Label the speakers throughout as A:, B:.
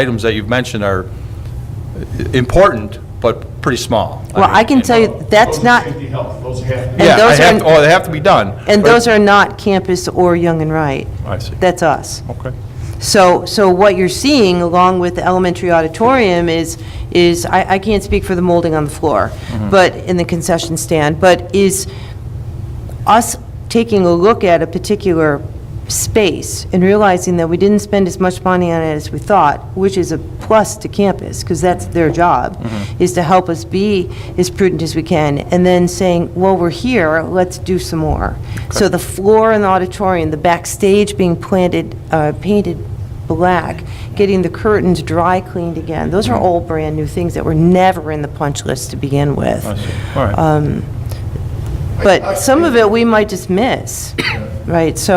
A: items that you've mentioned are important, but pretty small.
B: Well, I can tell you, that's
C: Those are
B: not,
C: Safety, health, those have to.
B: And
A: Yeah, I
B: those are-
A: have, oh, they have to be done.
B: and
A: but-
B: those are not campus or Young and Right.
A: I see.
B: That's us.
A: Okay.
B: So, so what you're seeing along with the elementary auditorium is, is, I, I can't speak for the molding on the floor,
A: Mm-hmm.
B: but in the concession stand, but is us taking a look at a particular space and realizing that we didn't spend as much money on it as we thought, which is a plus to campus, because that's their job, is to help us be as prudent as we can, and then saying, well, we're here, let's do some more. So the floor in the auditorium, the backstage being planted, uh, painted black, getting the curtains dry cleaned again, those are all brand-new things that were never in the punch list to begin with.
A: I see. All
B: uh,
A: right.
B: But some of it we might just miss, right? So,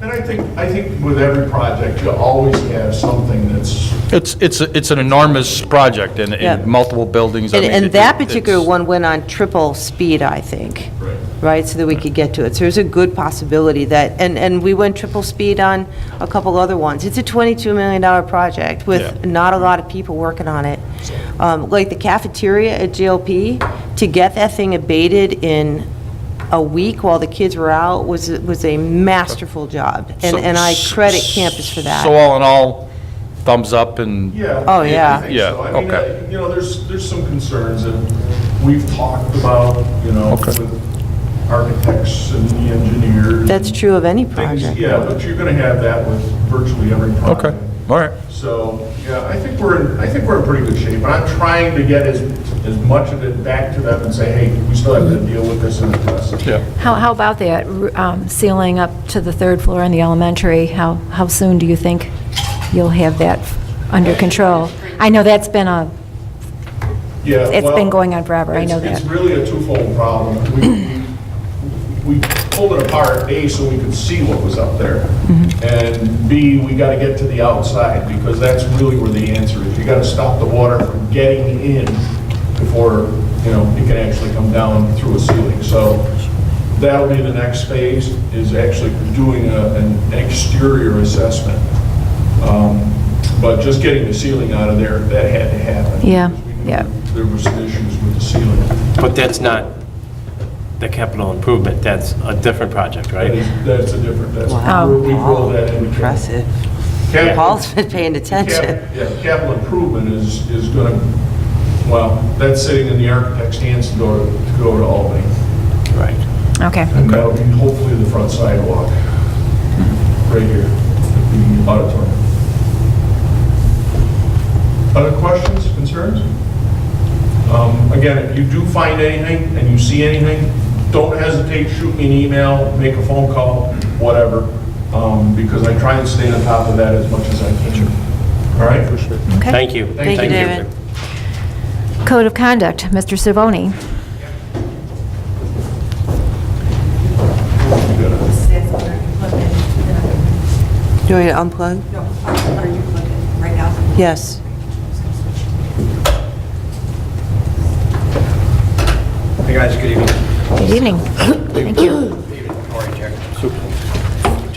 C: And I think, I think with every project, you always have something that's,
A: It's, it's, it's an enormous project in,
B: Yeah.
A: in multiple buildings. I
B: and,
A: mean, it-
B: and that
A: it-
B: particular
A: it's-
B: one went on triple speed, I think,
C: Right.
B: right? So that we could get to it. So there's a good possibility that, and, and we went triple speed on a couple other ones. It's a $22 million project with
A: Yeah.
B: not a lot of people working on it. Um, Like the cafeteria at GLP, to get that thing abated in a week while the kids were out was, was a masterful job. And,
A: so-
B: and I
A: so-
B: credit campus for that.
A: So all in all, thumbs up and.
C: yeah.
B: Oh,
C: I- I
B: yeah.
C: think
A: Yeah,
C: so. I mean,
A: okay.
C: I- You know, there's, there's some concerns that we've talked about, you know,
A: Okay.
C: with architects and the engineers.
B: That's
C: and
B: true of any
C: things-
B: project.
C: Yeah, but you're going to have that with virtually every project.
A: Okay, all right.
C: So, yeah, I think we're, in I think we're in pretty good shape, and I'm trying to get as, as much of it back to them and say, hey, we still have to deal with this and address it.
A: Yeah.
D: How, how about that, r- um, ceiling up to the third floor in the elementary? How, how soon do you think you'll have that under control? I know that's been a,
C: Yeah,
D: It's
C: well,
D: been going on forever, I know
C: it's- It's
D: that.
C: really a twofold problem. We- We we pulled it apart, A, so we could see what was up there, and B, we got to get to the outside, because that's really where the answer is. You got to stop the water from getting in before, you know, it can actually come down through a ceiling. So that'll be the next phase, is actually doing a- an exterior assessment. Um, But just getting the ceiling out of there, that had to happen.
D: Yeah,
C: because we knew
D: yeah.
C: There were some issues with the ceiling.
E: But that's not the capital improvement, that's a different project,
C: That
E: right?
C: is- That's a different, that's,
B: Wow,
C: we're- we rolled that in.
B: Impressive.
C: Cap-
B: Paul's been paying
C: cap-
B: attention.
C: Yeah, capital improvement is, is going to, well, that's sitting in the architect's hands to go, to go to Albany.
E: Right.
D: okay.
C: And that'll be hopefully the front sidewalk, right here, at the auditorium. Other questions, concerns? Um, Again, if you do find anything and you see anything, don't hesitate, shoot me an email, make a phone call, whatever, um, because I try and stay on top of that as much as I can. All right? For sure.
E: Thank you.
C: Thank you,
B: David.
D: Code of conduct, Mr. Savoni.
F: That's what I'm plugging in.
B: Do you want me to unplug?
F: No, are you plugging right now?
B: Yes.
G: Hey guys, good evening.
D: Good evening. Thank you. Oh,
G: How are you,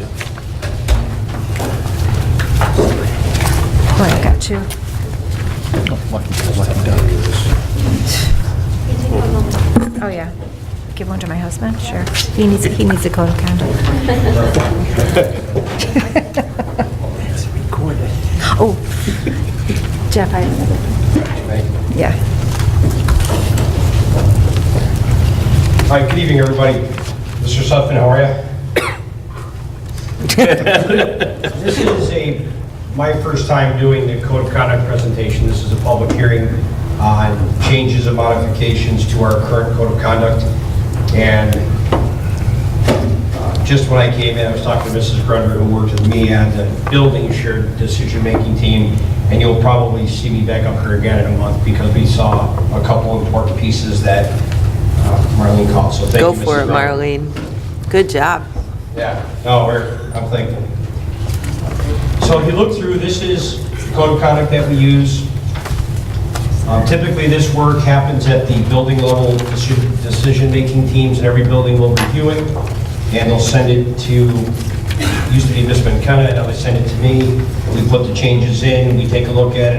G: Jack?
D: Boy, I got you. Oh, yeah. Give one to my husband, sure. He needs, he needs a code of conduct. Oh, Jeff, I, yeah.
G: Hi, good evening, everybody. Mr. Suffin, how are you? This is a, my first time doing the code of conduct presentation. This is a public hearing on changes and modifications to our current code of conduct. And uh, just when I came in, I was talking to Mrs. Grunder, who worked with me on the building shared decision-making team, and you'll probably see me back up here again in a month because we saw a couple important pieces that uh, Marlene called, so thank you,
B: Go
G: Mrs.
B: for it,
G: Grunder.
B: Marlene. Good job.
G: Yeah, no, Oh, we're, I'm thankful. So if you look through, this is the code of conduct that we use. Um, Typically, this work happens at the building level, deci- decision-making teams in every building will review it, and they'll send it to used to be Miss McKenna, now they send it to me, we put the changes in, we take a look at it,